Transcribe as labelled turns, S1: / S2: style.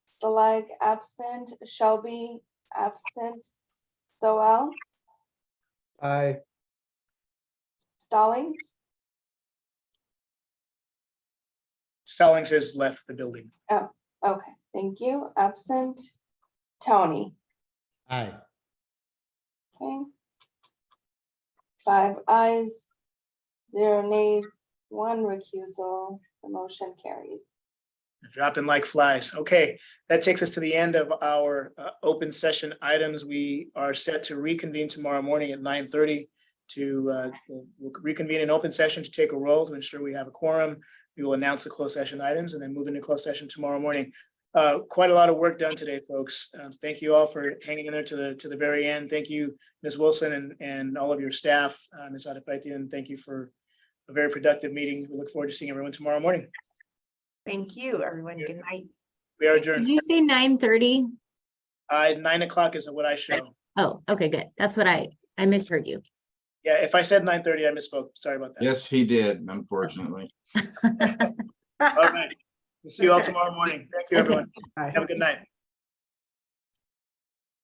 S1: Stalag absent, Shelby absent, Soel,
S2: Aye.
S1: Stallings,
S3: Stallings has left the building.
S1: okay, thank you, absent, Tony,
S2: Aye.
S1: okay. Five ayes, zero nays, one recusal, the motion carries.
S3: Dropping like flies. Okay, that takes us to the end of our uh, open session items. We are set to reconvene tomorrow morning at nine thirty to uh, we'll- we'll reconvene an open session to take a roll to ensure we have a quorum. We will announce the closed session items and then move into closed session tomorrow morning. Uh, Quite a lot of work done today, folks. Um, Thank you all for hanging in there to the to the very end. Thank you, Ms. Wilson and and all of your staff, uh, Ms. Adipatian. Thank you for a very productive meeting. We look forward to seeing everyone tomorrow morning.
S4: Thank you, everyone.
S3: Yeah.
S4: Good night.
S3: We are adjourned.
S5: Did you say nine thirty?
S3: Uh, nine o'clock is what I show.
S5: Oh, okay, good. That's what I, I misheard you.
S3: Yeah, if I said nine thirty, I misspoke. Sorry about that.
S6: Yes, he did, unfortunately.
S3: All right. We'll see you all
S4: Okay.
S3: tomorrow morning. Thank you,
S5: Okay.
S3: everyone.
S4: Bye.
S3: Have a good night.